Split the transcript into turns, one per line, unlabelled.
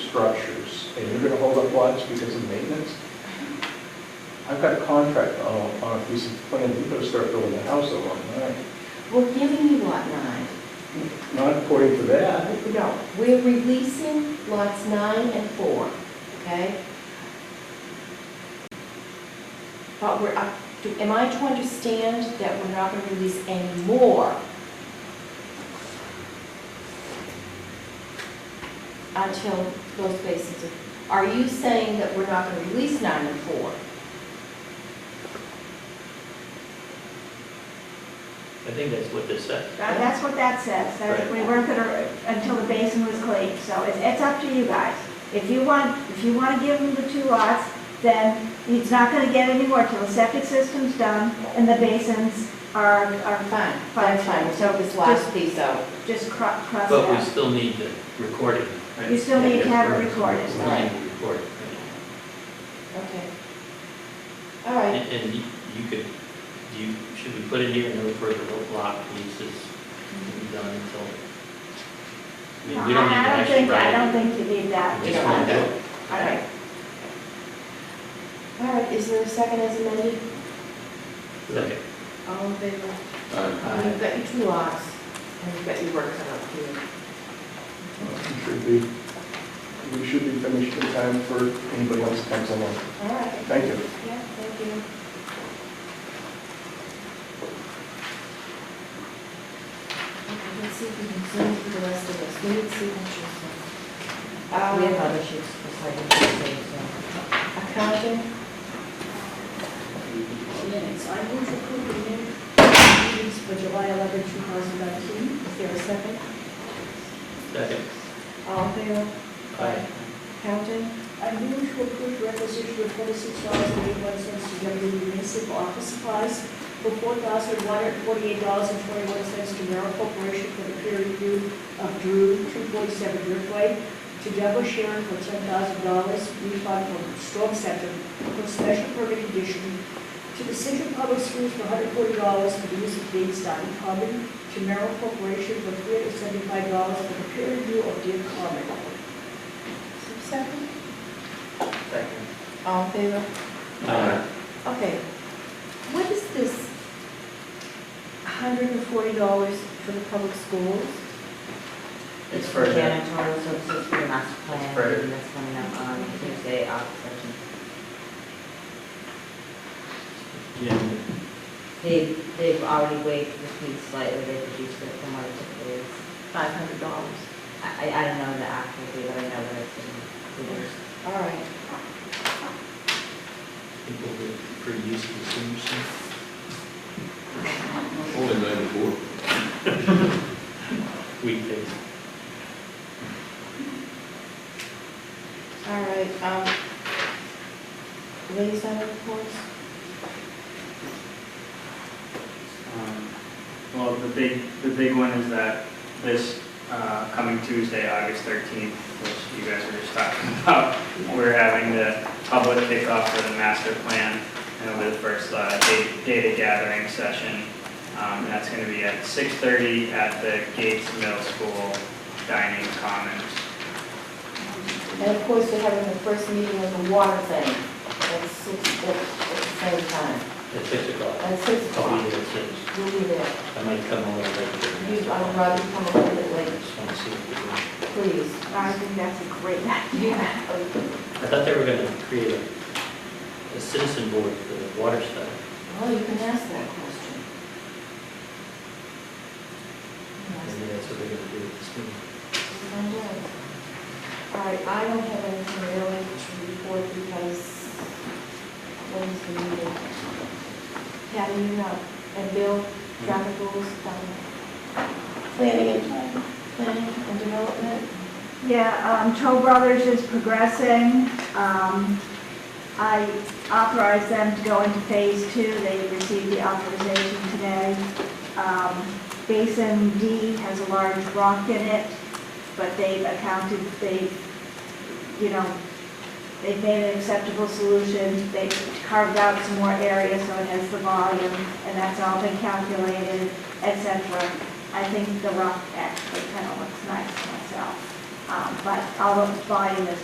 structures, and you're gonna hold up lots because of maintenance? I've got a contract on, a- on a piece of land, you're gonna start building a house along that.
We're giving you lot nine.
Not according to that.
No, we're releasing lots nine and four, okay? But we're, up- do- am I to understand that we're not going to release any more? Until those spaces are, are you saying that we're not going to release nine and four?
I think that's what this said.
Right, That's what that says, that we weren't gonna, until the basin was cleaned, so it's, it's up to you guys. If you want, if you wanna give him the two lots, then he's not gonna get any more till the septic system's done and the basins are, are
Fine, fine,
Fine.
fine, we'll take this last piece out.
just cro- crossed
But we
out.
still need the recording. right?
You still need to have it
Yeah,
recorded.
We need to record it.
Okay. All right.
And, and you you could, you, should we put in here no further block leases can be done until? I mean, we don't need to
I don't
actually
think,
write
I
it.
don't think you need that.
We
you
just
don't
want to
have
do it.
All right. All right, is there a second as amended?
Okay.
All in favor?
Aye.
Uh, You've got your two lots, and you've got your work done up here.
We should be, we should be finished in time for anybody else that comes along.
All right,
Thank you.
yeah, thank you. Okay, let's see if we can zoom through the rest of this, we need signatures. Um,
We have other sheets besides this, so.
Accounting?
Minutes, I move to approve the minute- minutes for July 11, 2019.
Is there a second?
Second.
All in favor?
Aye.
Accounting?
I move to approve requisition of $46.81 to W Municipal Office Supplies for $4,148.21 to Merrill Corporation for the peer review of Drew 247 Driftway, to Deborah Sharon for $10,000 refund from Storm Center for special permit condition, to the Central Public Schools for $140 for the use of Dave's Diamond Common, to Merrill Corporation for $375 for the peer review of Deer Common.
Is there a second?
Second.
All in favor?
Aye.
Okay, what is this hundred and forty dollars for the public schools?
It's for the-
Janitorial services for the master plan,
For-
and that's coming up on Tuesday, August second.
Jim,
They, they've already waived the fee slightly, they reduced it from what it typically is.
Five hundred dollars.
I, I I don't know the actual fee, but I know that it's in, it's
All right,
I think we'll be pretty used to this, you
Only ninety-four.
weekdays.
all right, um, liaison reports?
Um, Well, the big, the big one is that this uh, coming Tuesday, August 13th, which you guys were just talking about, we're having the public kickoff for the master plan, and it'll be the first uh, da- data gathering session. Um, That's going to be at 6:30 at the Gates Middle School Dining Commons.
And of course, they're having the first meeting of the water thing at six, at at the same time,
At six o'clock.
at six
I'll be
o'clock.
there at six.
You'll be there.
I might come a little
You,
late.
I'd rather come a little bit late,
Just want to see what we're doing.
please.
I think that's a great
Yeah.
idea.
I thought they were going to create a, a citizen board for the water stuff.
Well, you can ask that question. Yes,
Maybe that's what they're going to do with this meeting.
I'm doing it. All right, I don't have anything really to report because what is the meeting? Patty, you know, and Bill, traffic rules, um, planning and, planning and development.
Yeah, um, Toll Brothers is progressing. Um, I authorized them to go into phase two. They received the authorization today. Um, Basin D has a large rock in it, but they've accounted, they've, you know, they've made an acceptable solution. They carved out some more area so it has the volume, and that's all been calculated, et cetera. I think the rock actually kind of looks nice myself. Um, But although volume is